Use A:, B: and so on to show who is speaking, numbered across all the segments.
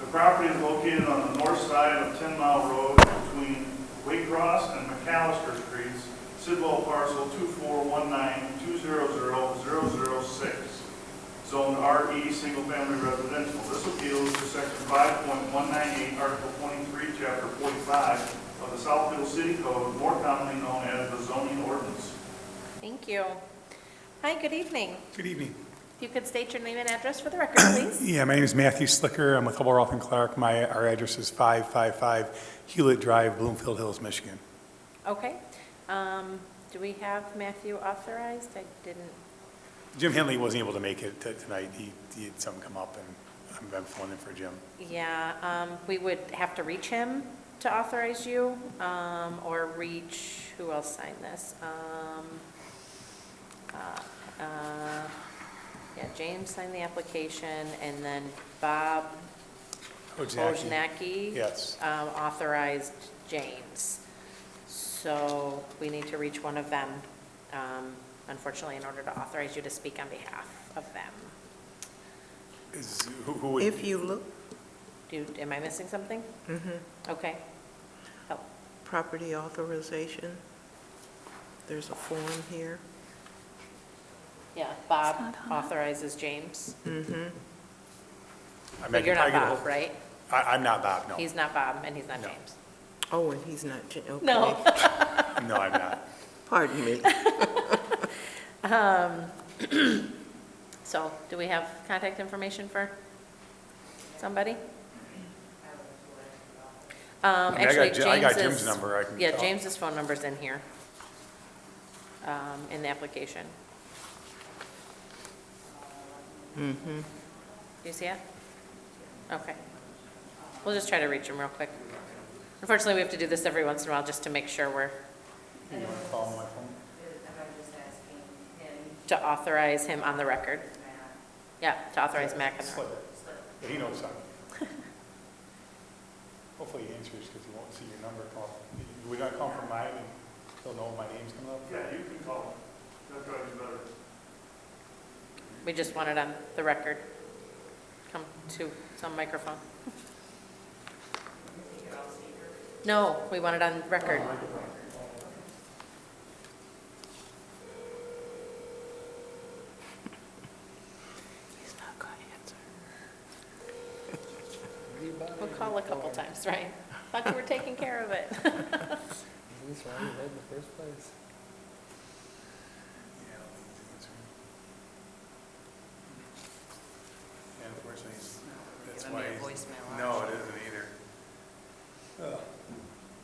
A: The property is located on the north side of Ten Mile Road between Waycross and McAllister Streets, Sidwell parcel 24192000006, zoned RE, single-family E, residential. This appeal is to section 5.198, article 23, chapter 45 of the Southfield City Code, more commonly known as the zoning ordinance.
B: Thank you. Hi, good evening.
C: Good evening.
B: If you could state your name and address for the record, please.
C: Yeah, my name is Matthew Slicker. I'm with Hubble Roth and Clark. My, our address is 555 Hewlett Drive, Bloomfield Hills, Michigan.
B: Okay. Um, Do we have Matthew authorized? I didn't,
C: Jim Henley wasn't able to make it t- tonight. He, he had something come up, and I'm- I'm filling in for Jim.
B: yeah, um, we would have to reach him to authorize you, um, or reach, who else signed this? Um, uh, uh, Yeah, James signed the application, and then Bob
C: Wojnacki.
B: Wojnacki.
C: Yes.
B: um, authorized James. So we need to reach one of them, um, unfortunately, in order to authorize you to speak on behalf of them.
C: Is, who, who would?
D: If you look,
B: Do, you- am I missing something? Mm-hmm. Okay. Oh, Help.
D: property authorization, there's a form here.
B: Yeah, Bob authorizes James.
C: I
B: But
C: mean,
B: you're
C: I
B: not
C: could-
B: Bob, right?
C: I, I'm not Bob, no.
B: He's not Bob, and he's not
C: No.
B: James.
D: Oh, and he's not, gen- okay.
B: No.
C: No, I'm not.
D: Pardon me.
B: So do we have contact information for somebody? Um,
C: I mean, I got
B: actually,
C: Ji- I got
B: James's-
C: Jim's number, I can
B: Yeah,
C: call.
B: James's phone number's in here, um, in the application. Mm-hmm. Do you see it? Okay. We'll just try to reach him real quick. Unfortunately, we have to do this every once in a while just to make sure we're,
C: You want to call him on my phone?
B: to authorize him on the record. Yeah, to authorize Mac on the record.
C: Slicker. Yeah, He knows something. Hopefully he answers, because he won't see your number call. Would not call from mine, and he'll know my name's coming up?
A: Yeah, you can call them. That probably better.
B: We just want it on the record. Come to some microphone. No, we want it on record.
D: He's not going to answer.
B: We'll call a couple times, right? Thought you were taking care of it.
E: At least why you led in the first place.
C: And unfortunately, that's
F: giving me
C: why.
F: a
C: he's-
F: voicemail
C: No, it isn't either. Ugh.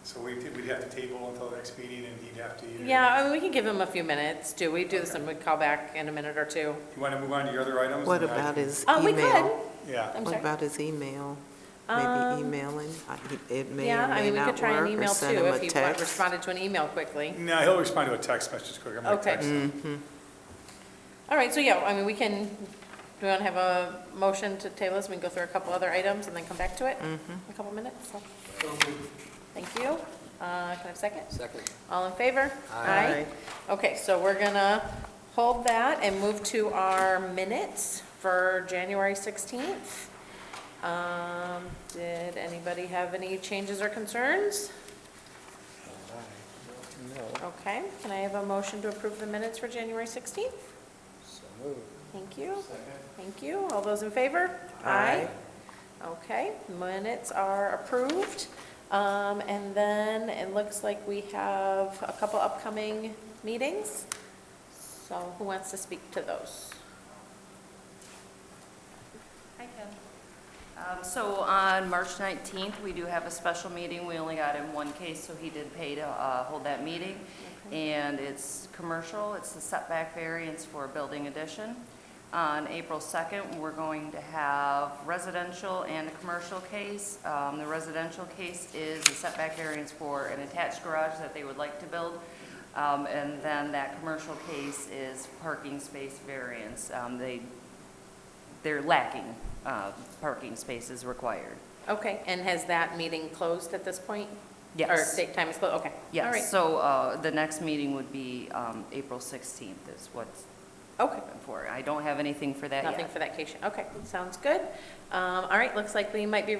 C: So we, we'd have to table until the next meeting and he'd have to either.
B: Yeah, I mean, we can give him a few minutes. Do we do this and we call back in a minute or two?
C: You want to move on to your other items?
D: What
C: And I
D: about
C: can-
D: his
B: Uh, we
D: email?
B: could.
C: Yeah,
B: I'm
D: What
B: sorry.
D: about his email? Maybe
B: Um,
D: emailing, I- he- it may
B: Yeah,
D: or
B: I
D: may
B: mean, we could
D: not
B: try an
D: work, or
B: email too
D: send him a
B: if he wa-
D: text.
B: responded to an email quickly.
C: no, he'll respond to a text message quicker. I'm gonna
B: Okay.
C: text him.
D: Mm-hmm.
B: All right, so yeah, I mean, we can, do we want to have a motion to table this? We can go through a couple other items and then come back to it
D: Mm-hmm.
B: in a couple minutes, so. Thank you. Uh, Can I have a second?
E: Second.
B: All in favor?
E: Aye.
B: Okay, so we're gonna hold that and move to our minutes for January 16th. Um, Did anybody have any changes or concerns?
E: No,
B: Okay, can I have a motion to approve the minutes for January 16th?
E: so moved.
B: Thank you. Thank you. All those in favor?
D: Aye.
B: Okay, minutes are approved. Um, And then it looks like we have a couple upcoming meetings. So who wants to speak to those?
F: I can. Um, So on March 19th, we do have a special meeting. We only got him one case, so he did pay to uh, hold that meeting. And it's commercial, it's the setback variance for a building addition. On April 2nd, we're going to have residential and a commercial case. Um, The residential case is a setback variance for an attached garage that they would like to build. Um, And then that commercial case is parking space variance. Um, They they're lacking uh, parking spaces required.
B: Okay, and has that meeting closed at this point?
F: Yes.
B: Or date time is closed, okay. All right.
F: Yes, so uh, the next meeting would be um, April 16th is what's
B: Okay,
F: for. I don't have anything for that yet.
B: nothing for that case, okay, sounds good. Um, All right, looks like we might be